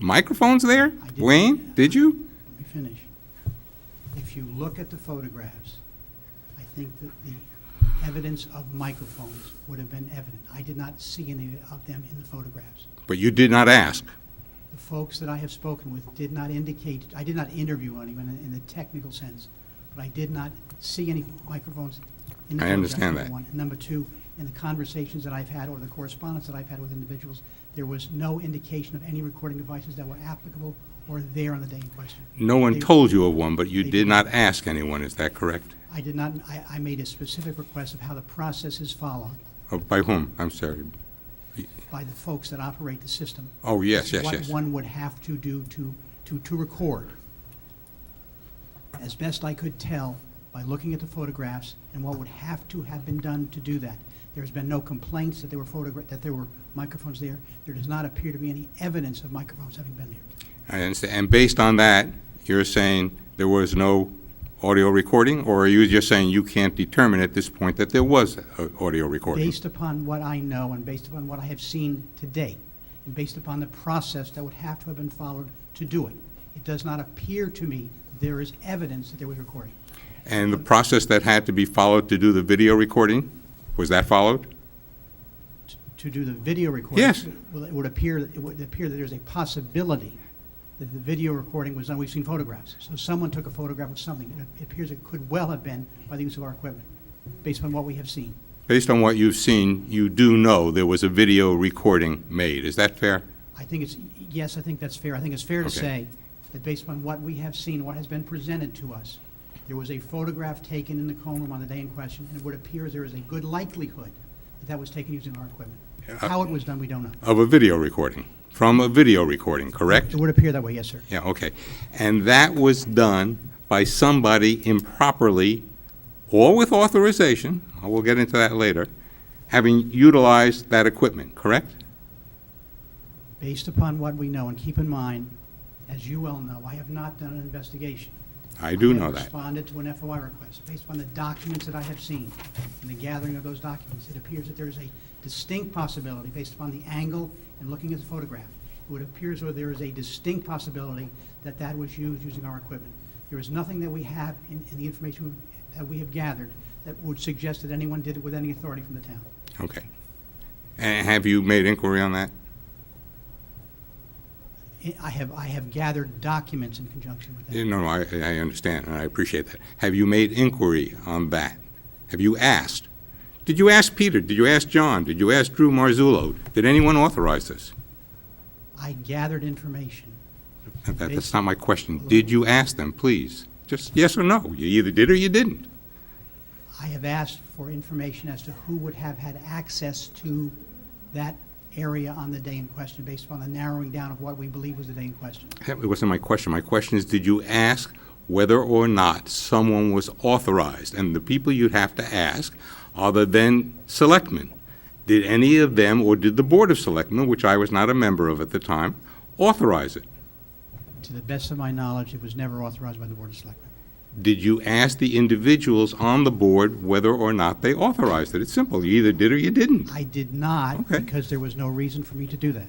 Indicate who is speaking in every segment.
Speaker 1: microphones there?
Speaker 2: didn't.
Speaker 1: Wayne, did you?
Speaker 2: Let me finish. If you look at the photographs, I think that the evidence of microphones would have been evident. I did not see any of them in the photographs.
Speaker 1: But you did not ask.
Speaker 2: The folks that I have spoken with did not indicate, I did not interview anyone in the technical sense, but I did not see any microphones in the
Speaker 1: I
Speaker 2: photographs,
Speaker 1: understand
Speaker 2: number
Speaker 1: that.
Speaker 2: one. And Number two, in the conversations that I've had or the correspondence that I've had with individuals, there was no indication of any recording devices that were applicable or there on the day in question.
Speaker 1: No one
Speaker 2: They-
Speaker 1: told you of one, but you
Speaker 2: They
Speaker 1: did
Speaker 2: did.
Speaker 1: not ask anyone, is that correct?
Speaker 2: I did not, I, I made a specific request of how the process is followed
Speaker 1: Or Oh, By whom? I'm sorry.
Speaker 2: by the folks that operate the system.
Speaker 1: Oh, yes, yes,
Speaker 2: What
Speaker 1: yes.
Speaker 2: one would have to do to, to, to record. As best I could tell by looking at the photographs and what would have to have been done to do that. There's been no complaints that there were photograph, that there were microphones there. There does not appear to be any evidence of microphones having been there.
Speaker 1: I understand. And based on that, you're saying there was no audio recording? Or are you just saying you can't determine at this point that there was a audio recording?
Speaker 2: Based upon what I know and based upon what I have seen today, and based upon the process that would have to have been followed to do it, it does not appear to me there is evidence that there was recording.
Speaker 1: And the process that had to be followed to do the video recording, was that followed?
Speaker 2: to do the video recording.
Speaker 1: Yes.
Speaker 2: Well, it would appear, it would appear that there's a possibility that the video recording was done, we've seen photographs. So someone took a photograph of something. It appears it could well have been by the use of our equipment, based on what we have seen.
Speaker 1: Based on what you've seen, you do know there was a video recording made, is that fair?
Speaker 2: I think it's, yes, I think that's fair. I think it's fair to
Speaker 1: Okay.
Speaker 2: say that based upon what we have seen, what has been presented to us, there was a photograph taken in the cone room on the day in question, and it would appear there is a good likelihood that that was taken using our equipment. How it was done, we don't know.
Speaker 1: Of a video recording, from a video recording, correct?
Speaker 2: It would appear that way, yes, sir.
Speaker 1: Yeah, okay. And that was done by somebody improperly, or with authorization, I will get into that later, having utilized that equipment, correct?
Speaker 2: based upon what we know, and keep in mind, as you well know, I have not done an investigation.
Speaker 1: I do
Speaker 2: I
Speaker 1: know
Speaker 2: have
Speaker 1: that.
Speaker 2: responded to an FOI request. Based upon the documents that I have seen, and the gathering of those documents, it appears that there is a distinct possibility, based upon the angle and looking at the photograph, it would appear as though there is a distinct possibility that that was used using our equipment. There is nothing that we have in, in the information that we have gathered that would suggest that anyone did it with any authority from the town.
Speaker 1: Okay. And have you made inquiry on that?
Speaker 2: I- I have, I have gathered documents in conjunction with that.
Speaker 1: Yeah, No, no, I, I understand, and I appreciate that. Have you made inquiry on that? Have you asked? Did you ask Peter? Did you ask John? Did you ask Drew Marzullo? Did anyone authorize this?
Speaker 2: I gathered information.
Speaker 1: That- That's not my question. Did you ask them, please? Just yes or no. You either did or you didn't.
Speaker 2: I have asked for information as to who would have had access to that area on the day in question, based upon the narrowing down of what we believe was the day in question.
Speaker 1: That wasn't my question. My question is, did you ask whether or not someone was authorized? And the people you'd have to ask are the then selectmen. Did any of them, or did the Board of Selectmen, which I was not a member of at the time, authorize it?
Speaker 2: To the best of my knowledge, it was never authorized by the Board of Selectmen.
Speaker 1: Did you ask the individuals on the board whether or not they authorized it? It's simple. You either did or you didn't.
Speaker 2: I did not,
Speaker 1: Okay.
Speaker 2: because there was no reason for me to do that.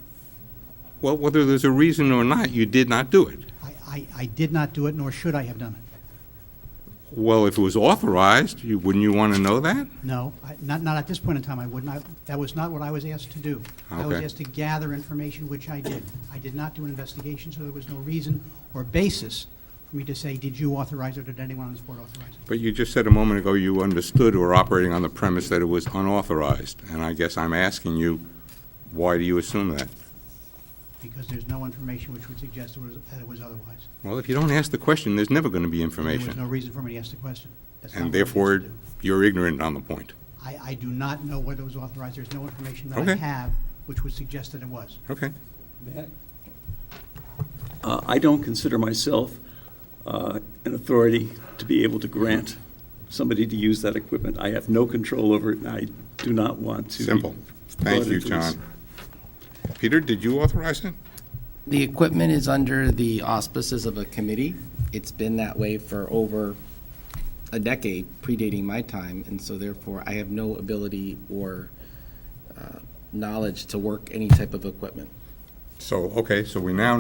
Speaker 1: Well, whether there's a reason or not, you did not do it.
Speaker 2: I, I, I did not do it, nor should I have done it.
Speaker 1: Well, if it was authorized, you, wouldn't you want to know that?
Speaker 2: No, I- not, not at this point in time, I would not, that was not what I was asked to do. I was
Speaker 1: Okay.
Speaker 2: asked to gather information, which I did. I did not do an investigation, so there was no reason or basis for me to say, did you authorize it, or did anyone on this board authorize it?
Speaker 1: But you just said a moment ago you understood or operating on the premise that it was unauthorized. And I guess I'm asking you, why do you assume that?
Speaker 2: Because there's no information which would suggest it was- that it was otherwise.
Speaker 1: Well, if you don't ask the question, there's never going to be
Speaker 2: There was
Speaker 1: information.
Speaker 2: no reason for me to ask the question. That's not
Speaker 1: And
Speaker 2: what I was asked to
Speaker 1: therefore,
Speaker 2: do.
Speaker 1: you're ignorant on the point.
Speaker 2: I, I do not know whether it was authorized. There's no information that I
Speaker 1: Okay.
Speaker 2: have which would suggest that it was.
Speaker 1: Okay.
Speaker 3: Uh, I don't consider myself uh, an authority to be able to grant somebody to use that equipment. I have no control over it, and I do not want to. be
Speaker 1: Simple.
Speaker 3: brought
Speaker 1: Thank you,
Speaker 3: into this.
Speaker 1: John. Peter, did you authorize it?
Speaker 4: The equipment is under the auspices of a committee. It's been that way for over a decade, predating my time, and so therefore I have no ability or uh, knowledge to work any type of equipment.
Speaker 1: So, okay, so we now